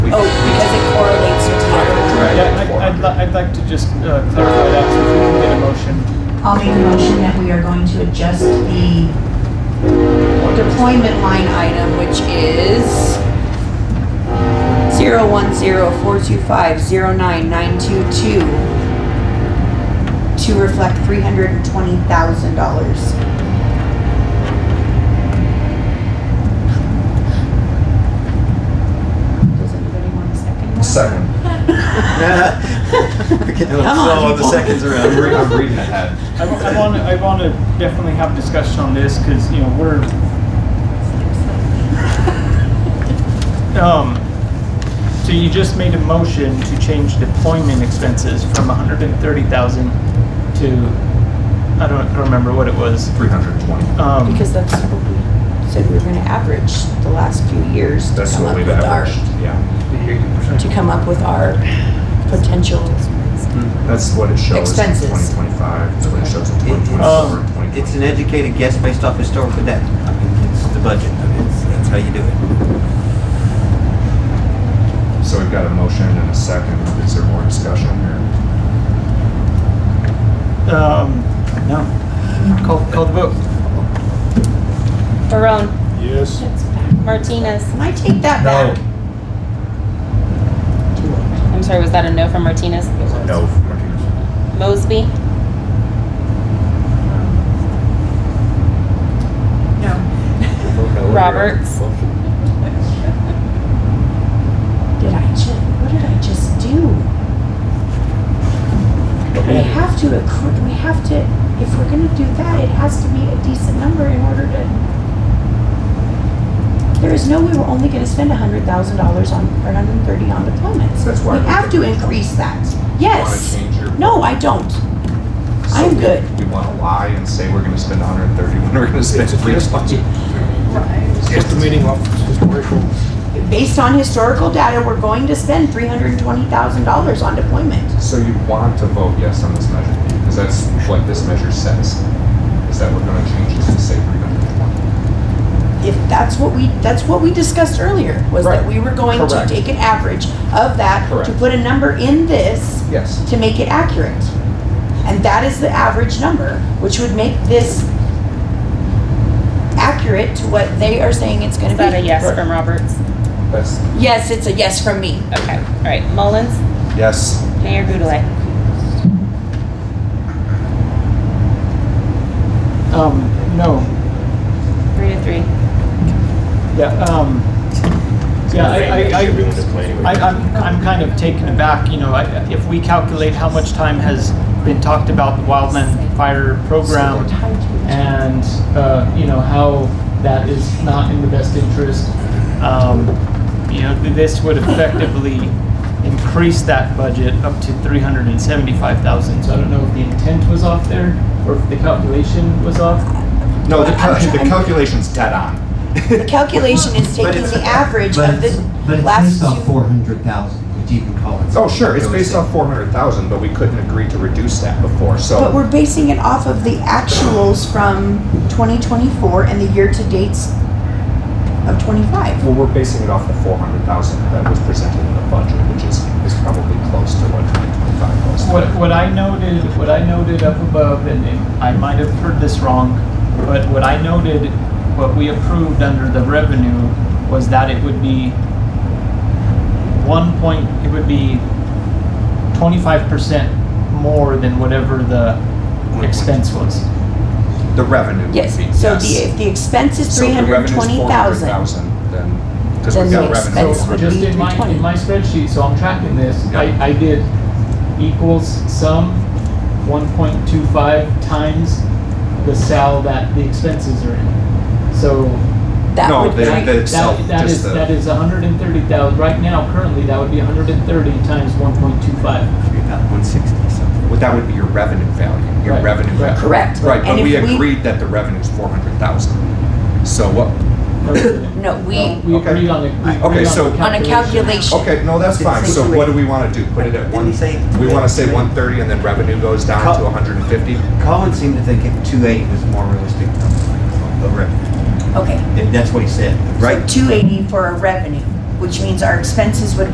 Oh, I'd, li- I'd like to just uh, clarify that, so if we can get a motion. I'll make a motion that we are going to adjust the deployment line item, which is zero one zero four two five zero nine nine two two to reflect three hundred and twenty thousand dollars. Does anybody want a second? that? Second. We're getting a little Come on, slow on the people. seconds I'm, re- around. I'm reading ahead. I, want to, I want to definitely have discussion on this, because, you know, we're, um, so you just made a motion to change deployment expenses from hundred and thirty thousand to, I don't, I don't remember what it was. 320. Um, Because that's what we said we were gonna average the last few years to That's come what up we've with our, averaged. Yeah. to come up with our potential. That's what it shows Expenses. in 2025. That's what it shows in It- it's- 2024. Um, and It's an educated guess based off historical data. I mean, it's the budget. I mean, it's- That's how you do it. 2025. So we've got a motion and a second. Is there more discussion here? um, No. call, call the vote. Barone, Yes. Martinez. Can I take that back? I'm sorry, was that a no from Martinez? No. from Martinez. Mosby, Roberts, Did I just, what did I just do? We have to accrue, we have to, if we're gonna do that, it has to be a decent number in order to. There is no way we're only gonna spend a hundred thousand dollars on, or hundred and thirty on deployments. That's We why we- have to increase that, Want to yes. change your? No, I don't. So I'm good. We want to lie and say we're going to spend 130 when we're going to spend 320. estimating off historical. Based on historical data, we're going to spend three hundred and twenty thousand dollars on deployment. So you want to vote yes on this measure, because that's what this measure says, is that we're gonna change this to say three hundred and twenty. if that's what we, that's what we discussed earlier, was that Right. we were going to Correct. take an average of that, to Correct. put a number in this, Yes. to make it accurate. And that is the average number, which would make this accurate to what they are saying it's gonna is be. that a yes from Roberts? That's, Yes, it's a yes from me. Okay, all right, Mullins, yes. Mayor Gudelay. Um, no, Three to three. Yeah, um, yeah, I, I, I, I, I'm, I'm kind of taken aback, you know, I, if we calculate how much time has been talked about the wildland fire program and, uh, you know, how that is not in the best interest, um, you know, this would effectively increase that budget up to three hundred and seventy-five thousand. So I don't know if the intent was off there or if the calculation was off. No, the, I'm cal- the trying- calculation's dead on. The calculation is taking it's- the average But of the it's, but it's last based two. off four hundred thousand, which you can call it. Oh, sure, it's based off four hundred thousand, but we couldn't agree to reduce that before, But so. we're basing it off of the actuals from 2024 and the year-to-dates of '25. Well, we're basing it off the four hundred thousand that was presented in the budget, which is, is probably close to what twenty twenty-five was. What, what I noted, what I noted up above, and and I might have heard this wrong, but what I noted, what we approved under the revenue was that it would be one point, it would be twenty-five percent more than whatever the expense was. The revenue would be, Yes, yes. so the, if the expense is So three if the hundred and revenue's twenty thousand, 400,000, Then, because Then we've the got revenue expense of would So just in my, in my spreadsheet, so I'm tracking this, Yeah. I, I did equals sum one point two five times the sal that the expenses are in. So that No, would they- be, they- itself, That, that just is, the- that is hundred and thirty thousand, right now, currently, that would be hundred and thirty times one point two five. Should be about 160 something. Well, that would be your revenue value, your Right, revenue. right. value. correct. Right, And but we if agreed that the revenue is four hundred thousand. So what, No, we, We Okay. agreed on it. Okay, so- on a calculation, okay, no, that's It's fine, so what do situated. we wanna do? Put it Didn't at one, he say- we wanna say one thirty and then revenue goes down Cut. to hundred and fifty? Colin seemed to think it- 280 was a more realistic number. of revenue. okay. If that's what he said, right? Two eighty for our revenue, which means our expenses would